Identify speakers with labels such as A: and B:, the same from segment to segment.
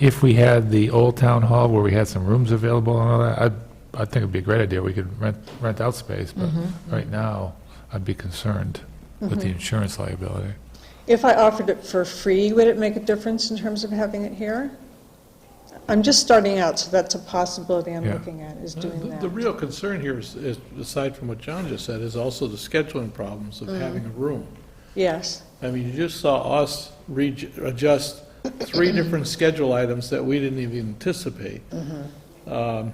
A: If we had the old town hall where we had some rooms available and all that, I, I think it'd be a great idea. We could rent, rent out space, but
B: Mm-hmm.
A: right now, I'd be concerned with the insurance liability.
C: If I offered it for free, would it make a difference in terms of having it here? I'm just starting out, so that's a possibility I'm
A: Yeah.
C: looking at, is
D: The-
C: doing
D: Uh,
C: that.
D: The real concern here is, is, aside from what John just said, is also the scheduling problems
C: Mm.
D: of having a room.
C: Yes,
D: I mean, you just saw us re- adjust three different schedule items that we didn't even anticipate.
C: Mm-hmm.
D: Um,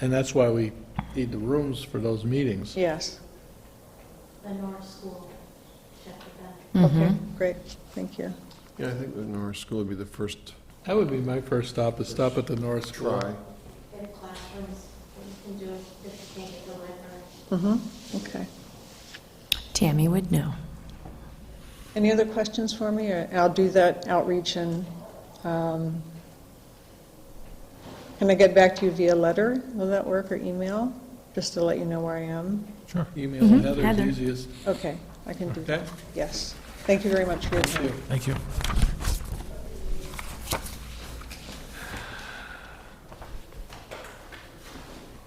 D: And that's why we need the rooms for those meetings.
C: yes.
E: the North School, check with them.
C: Okay, great, thank you.
F: Yeah, I think the Norris School would be the first
D: That would be my first stop, is stop at the North School.
F: try.
E: Get classrooms, what you can do if you can't get the library.
C: Mhm, Okay.
G: Tammy would know.
C: Any other questions for me? Or I'll do that outreach and, um, can I get back to you via letter? Will that work, or email? Just to let you know where I am?
A: Sure.
D: Email
C: Mm-hmm.
D: Heather's
G: Heather.
D: easiest.
C: Okay, I can do that,
D: Okay?
C: yes. Thank you very much for your time.
A: Thank you.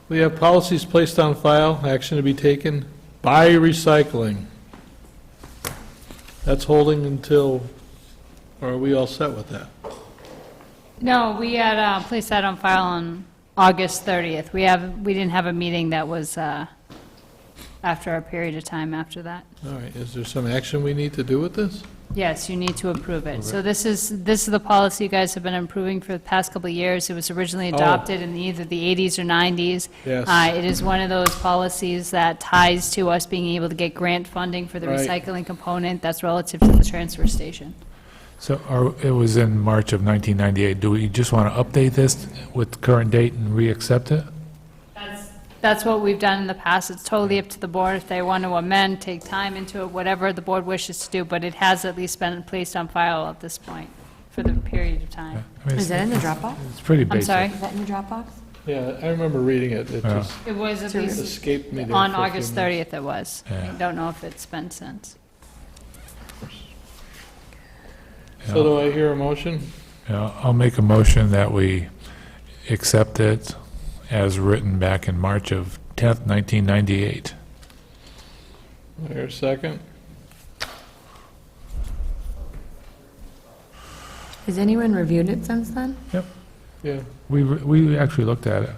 D: We have policies placed on file, action to be taken by recycling. That's holding until, or are we all set with that?
B: No, we had uh, placed that on file on August 30th. We have, we didn't have a meeting that was uh, after a period of time after that.
D: All right, is there some action we need to do with this?
B: Yes, you need to approve it. So this is, this is the policy you guys have been improving for the past couple of years. It was originally
D: Oh.
B: adopted in either the 80s or 90s.
D: Yes.
B: Uh, It is one of those policies that ties to us being able to get grant funding for the
D: Right.
B: recycling component that's relative to the transfer station.
A: So are, it was in March of 1998. Do we just want to update this with current date and re-accept it?
B: That's, that's what we've done in the past. It's totally up to the board if they want to amend, take time into it, whatever the board wishes to do, but it has at least been placed on file at this point for the period of
A: I
B: time.
A: mean,
G: Is that in the Dropbox?
A: It's pretty
B: I'm
A: basic.
B: sorry?
G: Is that in the Dropbox?
D: Yeah, I remember reading it, it
A: Yeah.
D: just
B: It was at least
D: escaped me. there
B: on
D: for a few
B: August
D: minutes.
B: 30th it was.
A: Yeah.
B: I don't know if it's been since.
D: So do I hear a motion?
A: Yeah, I'll make a motion that we accept it as written back in March of 10th, 1998.
D: Do I hear a second?
G: Has anyone reviewed it since then?
D: Yeah.
A: We, re- we actually looked at it.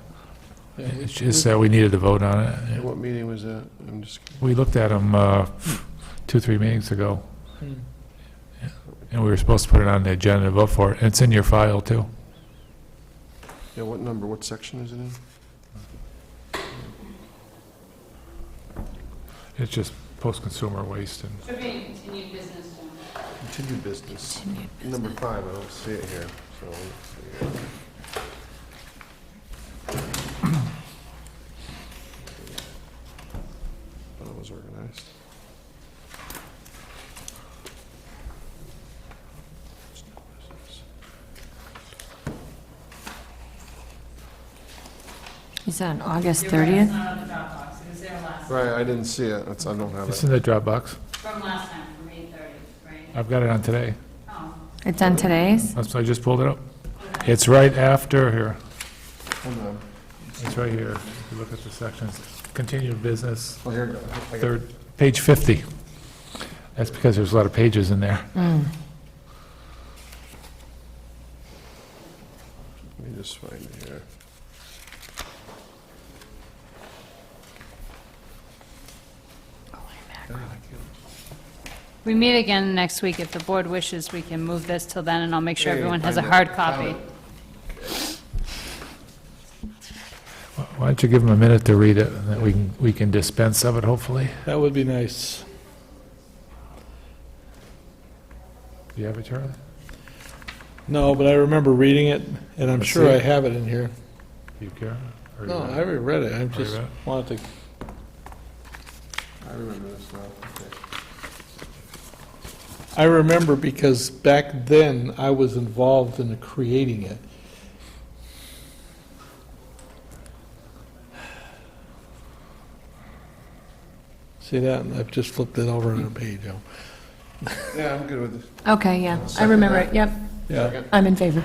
D: yeah, we-
A: It's just that we needed to vote on it.
F: And what meeting was that? I'm just,
A: We looked at them uh, two, three meetings ago,
D: Hmm.
A: and we were supposed to put it on the agenda and vote for it. And It's in your file, too.
F: yeah, what number, what section is it in?
A: It's just post-consumer waste and
B: Should be continued business,
F: Continued business. Number five, I don't see it here, so. let's see. Thought it was organized.
G: Is that on August 30th?
B: not on the Dropbox. It was there last,
F: Right, I didn't see it, That's I don't have
A: it's
F: it.
A: in the Dropbox.
B: from last time, from 8:30, right?
A: I've got it on today.
B: Oh,
G: It's on today's?
A: That's why I just pulled it up. It's right after here.
F: Hold on.
A: It's right here. If you look at the sections, continued business,
F: Oh, here, it goes. I got it.
A: Third, page 50. That's because there's a lot of pages in there.
F: Let me just find it here.
B: We meet again next week. If the board wishes, we can move this till then, and I'll make sure
F: Yeah, you
B: everyone has a
F: find it.
B: hard copy.
A: Why don't you give them a minute to read it, and then we can, we can dispense of it, hopefully?
D: That would be nice.
A: Do you have it, Charlie?
D: No, but I remember reading it, and I'm
A: Let's
D: sure
A: see.
D: I have it in here.
A: Do you care? Or you
D: No,
A: not?
D: I already read it, I just
A: read it?
D: wanted to
F: I remember this now, okay.
D: I remember because back then, I was involved in creating it. See that? I've just flipped it over on a page.
F: Yeah, I'm good with it.
G: Okay, yeah, I remember it, yep,
D: Yeah.
G: I'm in favor.